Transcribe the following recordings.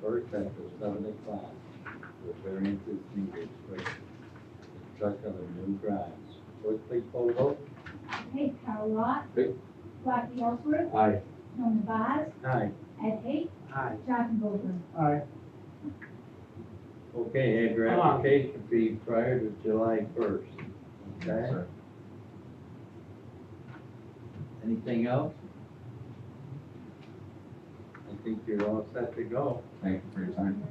contractor Dominic Klein with variances needed for the truck of a new grind. Clerk, please poll the vote. Okay, Carol Lot. Yep. Rodney Ellsworth, Aye. Joan Vaz, Aye. Ed Hay, Aye. Jonathan Goldberg. Aye. Okay, have your Come on. application be prior to July first, okay? Anything else? I think you're all set to go. Thank you for your time.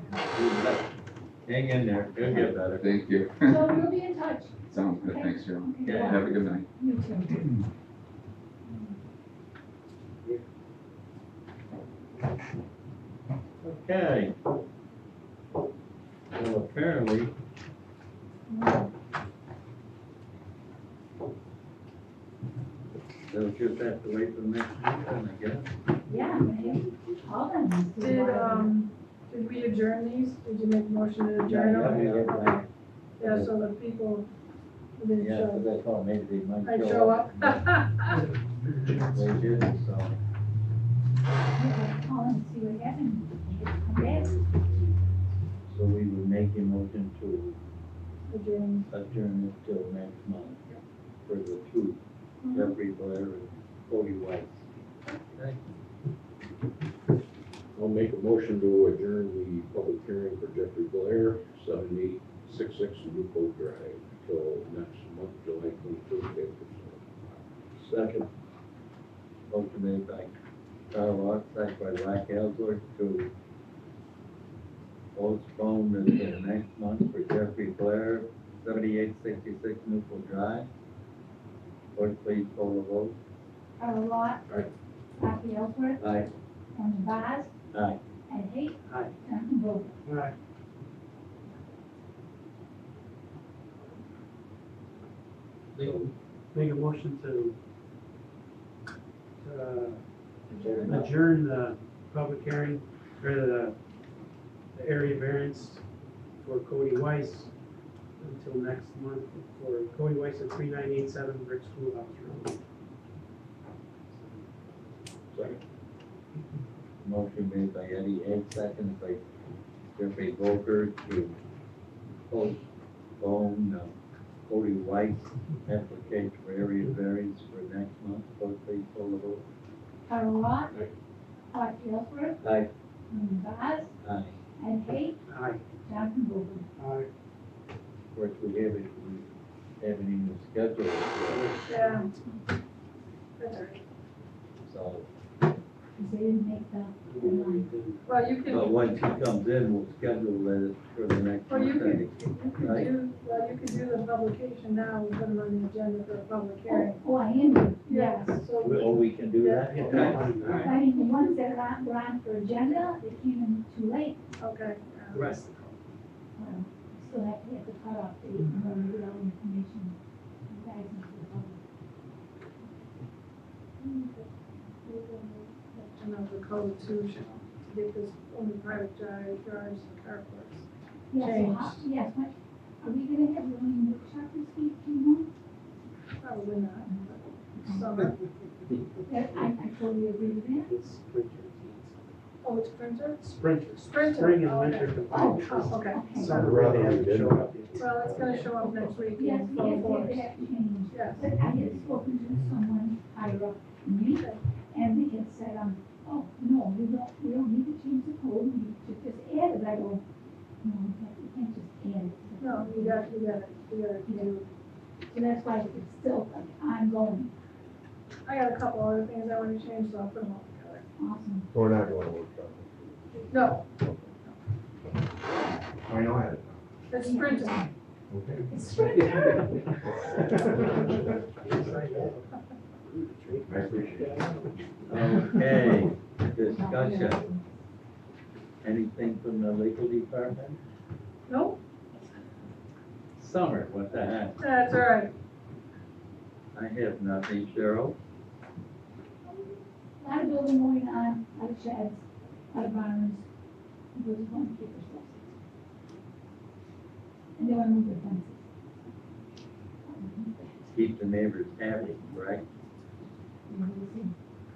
Hang in there, it'll get better. Thank you. So we'll be in touch. Sounds good. Thanks, Cheryl. Okay, Yeah. bye. Have a good night. You too. Okay. Well, apparently, they'll just have to wait for the next meeting, I guess. Yeah, maybe call them. and see Did, why they're- um, did we adjourn these? Did you make a motion to adjourn? Yeah, yeah, yeah, yeah. Okay. Yeah, so the people didn't Yeah, show, so that's all, maybe they I might show up. They didn't, so. Okay, Call them, see what happens. Okay, So we would make a motion to Adjourn. adjourn it till next month for the two, Jeffrey Blair and Cody White. I'll make a motion to adjourn the public hearing for Jeffrey Blair, seven eight six six Newco Drive, till next month, July twenty-third, Second. Motion made by Carl Rock, second by Mike Ellsworth to postpone this till next month for Jeffrey Blair, seventy-eight sixty-six Newport Drive. Clerk, please call the vote. Carol Lot. Aye. Rodney Ellsworth, Aye. Joan Vaz, Aye. Ed Hay. Aye. Jonathan Goldberg. Aye. Make a motion to uh, adjourn the public hearing or the, the area variance for Cody Weiss until next month for Cody Weiss at three nine eight seven Brick Schoolhouse Road. Second, Motion made by Eddie Head, second by Jeffrey Volker to postpone uh, Cody White's application for area variance for next month. Clerk, please call the vote. Carol Lot. Aye. Rodney Ellsworth, Aye. Joan Vaz, Aye. Ed Hay, Aye. Jonathan Goldberg. Aye. Of course, we haven't, we haven't even scheduled it, Yeah. That's all right. so. Because they didn't make the oh, deadline. Well, you But could, once he comes in, we'll schedule it for the next Well, you meeting. you could do, well, you could do the publication now and put them on the agenda for a public hearing. Oh, oh, I am, Yeah, yes. so. We- Oh, we can do that? Yeah. Okay. I mean, the ones that are on, were on for agenda, they came in too late, Okay. um, Right. um, so that we have to cut off the, um, Mm-hmm. the other information. you guys need to vote. And of the code too, shall, to get this only private drive, yards, and carports. Yeah, so how, yes, what, are we gonna have the only workshop this week, do you Probably not. but Summer. know? That, I, I totally agree with that. It's sprinter. Oh, it's printer? Sprinter. Sprinter, Spring and oh, winter okay. combined. Oh, okay. Summer really hasn't showed up yet. Well, it's gonna show up next week Yes, in we full have to have that force. changed. Yes. But I had spoken to someone higher up in me, and they had said, um, oh, no, we don't, we don't need to change the code, we need to just add it, I go, no, we can't, we can't just add it. No, you got, you got it, you got it. You know, so that's why it's still like ongoing, I got a couple other things I wanna change, so I'll put them all together. awesome. We're not going to workshop. No, I know I had it's printer. it. It's right there. I appreciate it. Okay, discussion. Anything from the legal department? No, Summer, what the heck? that's all right. I have nothing, Cheryl. A lot of building going on, a lot of sheds, a lot of barns, we just want to keep ourselves. safe. And they want to move their fences. Um, Keep the neighbors happy, right? we'll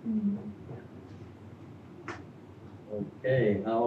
see. Okay, how